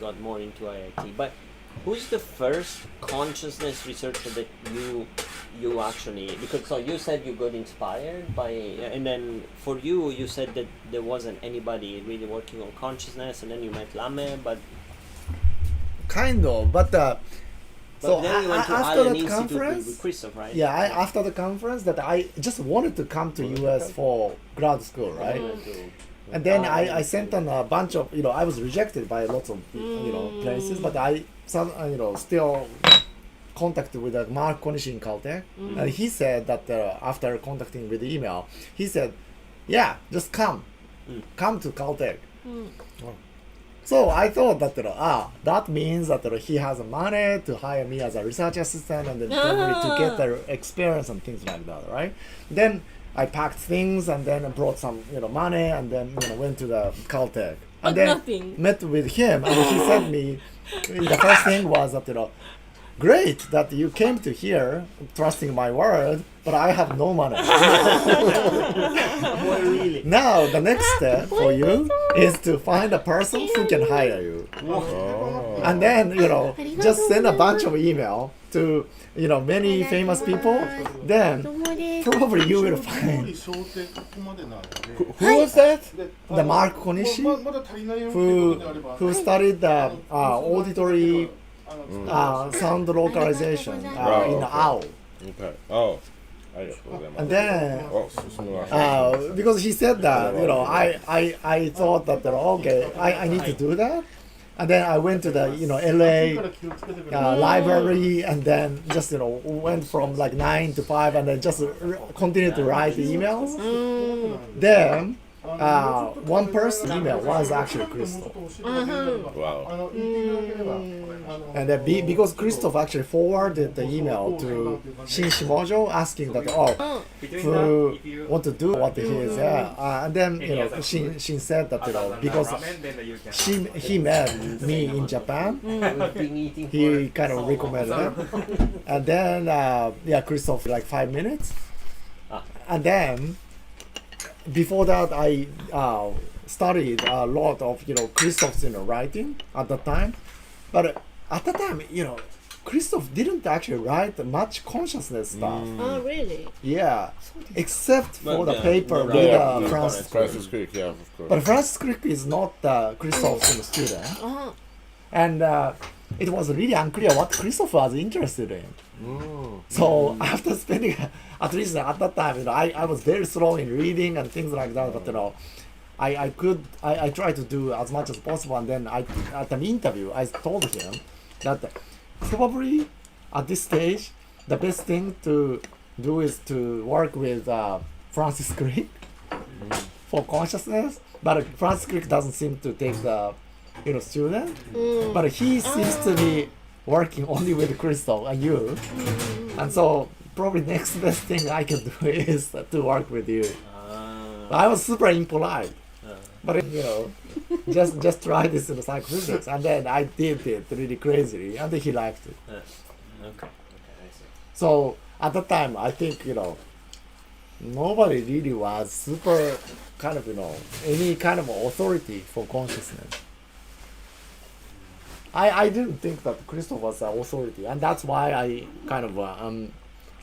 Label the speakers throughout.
Speaker 1: got more into IIT. But who's the first consciousness researcher that you you actually because so you said you got inspired by and then for you you said that there wasn't anybody really working on consciousness and then you met Lame but
Speaker 2: kind of but uh,
Speaker 1: But
Speaker 2: so
Speaker 1: then you
Speaker 2: I-
Speaker 1: went to
Speaker 2: I- after
Speaker 1: Allen
Speaker 2: that
Speaker 1: Institute with,
Speaker 2: conference
Speaker 1: with Christoph, right?
Speaker 2: yeah I, after the conference that i just wanted to come to us for grad school
Speaker 1: I
Speaker 2: right
Speaker 1: went to-
Speaker 2: and then
Speaker 1: Ah,
Speaker 2: I, I sent on a bunch of you know i was rejected by lots of you know places but i some uh, you know still contacted with uh, mark konishi in caltech and he said that uh, after contacting with email he said yeah just come come to caltech
Speaker 3: Mm.
Speaker 2: so I thought that you know, ah that means that you know, he has money to hire me as a research assistant and then probably
Speaker 3: Ah.
Speaker 2: to get the experience and things like that, right? Then I packed things and then I brought some you know money and then you know went to the Caltech
Speaker 3: But
Speaker 2: and then
Speaker 3: nothing.
Speaker 2: met with him and he said me the first thing was that you know great that you came to here trusting my word but I have no money.
Speaker 1: Boy, really?
Speaker 2: Now the next step for you is to find a person who can hire you.
Speaker 4: Oh.
Speaker 2: And then, you know, just send a bunch of email to, you know, many famous people. Then
Speaker 5: どうもです。
Speaker 2: probably you will
Speaker 6: 勝
Speaker 2: find
Speaker 6: 利想定ここまでなので
Speaker 2: who was that?
Speaker 6: で、
Speaker 2: The Mark Konishi
Speaker 6: ままだ足りないよっていう
Speaker 2: Who
Speaker 6: ことであれば、
Speaker 2: who started the uh, auditory
Speaker 6: あの、うん、
Speaker 2: uh, sound localization uh, in OWL.
Speaker 4: Okay. Oh, ありがとうございます。
Speaker 2: And then
Speaker 4: あ、進むな。
Speaker 2: uh, because he said that, you know, I, I, I thought that, you know, okay, I, I need to do that. And then I went to the, you know,
Speaker 6: いい
Speaker 2: LA
Speaker 6: から気をつけてくれ。
Speaker 2: uh, library and then just you know went from like nine to five and then just r- continued to write emails then uh, one person email was actually Christoph
Speaker 6: あ
Speaker 4: Wow.
Speaker 6: の、言っていただければ、あの
Speaker 2: and then be, because Christoph actually forwarded the email to Shin Shimojo asking that oh who want to do what he is uh, uh, and then you know Shin, Shin said that you know because she, he met me in Japan
Speaker 1: We've been eating
Speaker 2: he
Speaker 1: for
Speaker 2: kind
Speaker 1: so
Speaker 2: of
Speaker 1: long.
Speaker 2: recommended it. and then uh, yeah christoph like five minutes
Speaker 1: Ah.
Speaker 2: and then before that i uh, studied a lot of you know christoph's you know writing at the time but at the time you know christoph didn't actually write much consciousness stuff
Speaker 3: Oh, really?
Speaker 2: yeah except
Speaker 1: But
Speaker 2: for the
Speaker 1: yeah,
Speaker 2: paper
Speaker 1: no,
Speaker 2: with
Speaker 1: yeah,
Speaker 2: uh,
Speaker 1: no,
Speaker 2: francis
Speaker 1: correct.
Speaker 4: Francis Crick, yeah, of course.
Speaker 2: but francis crick is not uh, christoph's you know, student
Speaker 3: Uh-huh.
Speaker 2: and uh, it was really unclear what Christopher was interested in.
Speaker 4: Mm.
Speaker 2: So after spending, at least at that time, you know, I, I was very slow in reading and things like that. But you know, I, I could I, I tried to do as much as possible. And then I at an interview I told him that probably at this stage the best thing to do is to work with uh, Francis Crick for consciousness. But Francis Crick doesn't seem to take the you know student. But he seems to be working only with Crystal and you. And so probably next best thing I can do is to work with you.
Speaker 1: Ah,
Speaker 2: I was super impolite.
Speaker 1: Uh.
Speaker 2: But you know, just just try this in psychophysics, and then I did it really crazily, and he liked it.
Speaker 1: okay. Okay, I see.
Speaker 2: So at the time, I think you know, nobody really was super kind of you know any kind of authority for consciousness. I I didn't think that Christoph was an authority, and that's why I kind of uh, um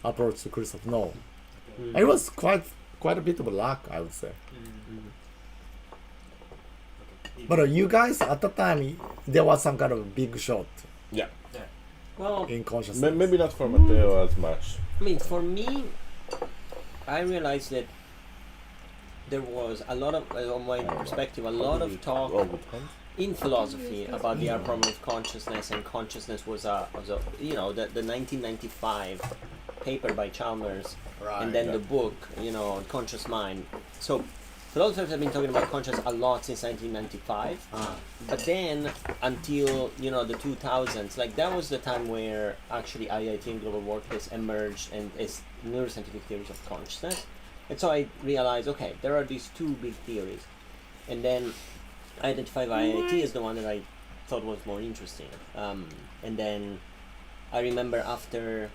Speaker 2: approached Christoph. No, it was quite quite a bit of luck, I would say. But uh, you guys at the time, there was some kind of big shot
Speaker 4: yeah.
Speaker 1: Well,
Speaker 2: in consciousness.
Speaker 4: Ma- Maybe not for Matteo as much.
Speaker 1: I mean, for me, I realized that there was a lot of, uh, on my perspective, a lot of talk
Speaker 4: All good times.
Speaker 1: in philosophy about the problem of consciousness, and consciousness was a, was a you know, the, the 1995 paper by Chalmers, and then the book, you know, Conscious Mind. So, philosophers have been talking about conscious a lot since 1995, but then until, you know, the 2000s, like that was the time where actually IIT and Global Workplace emerged and is neuroscientific theories of consciousness. And so I realized, okay, there are these two big theories. And then I identified IIT as the one that I thought was more interesting. Um, and then I remember after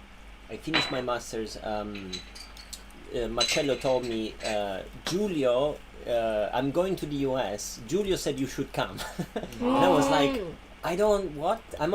Speaker 1: I finished my master's, um, uh, Marcello told me, uh,
Speaker 3: Mm.
Speaker 1: Giulio, uh, I'm going to the US. Giulio said you should come. and I was like, I don't what I'm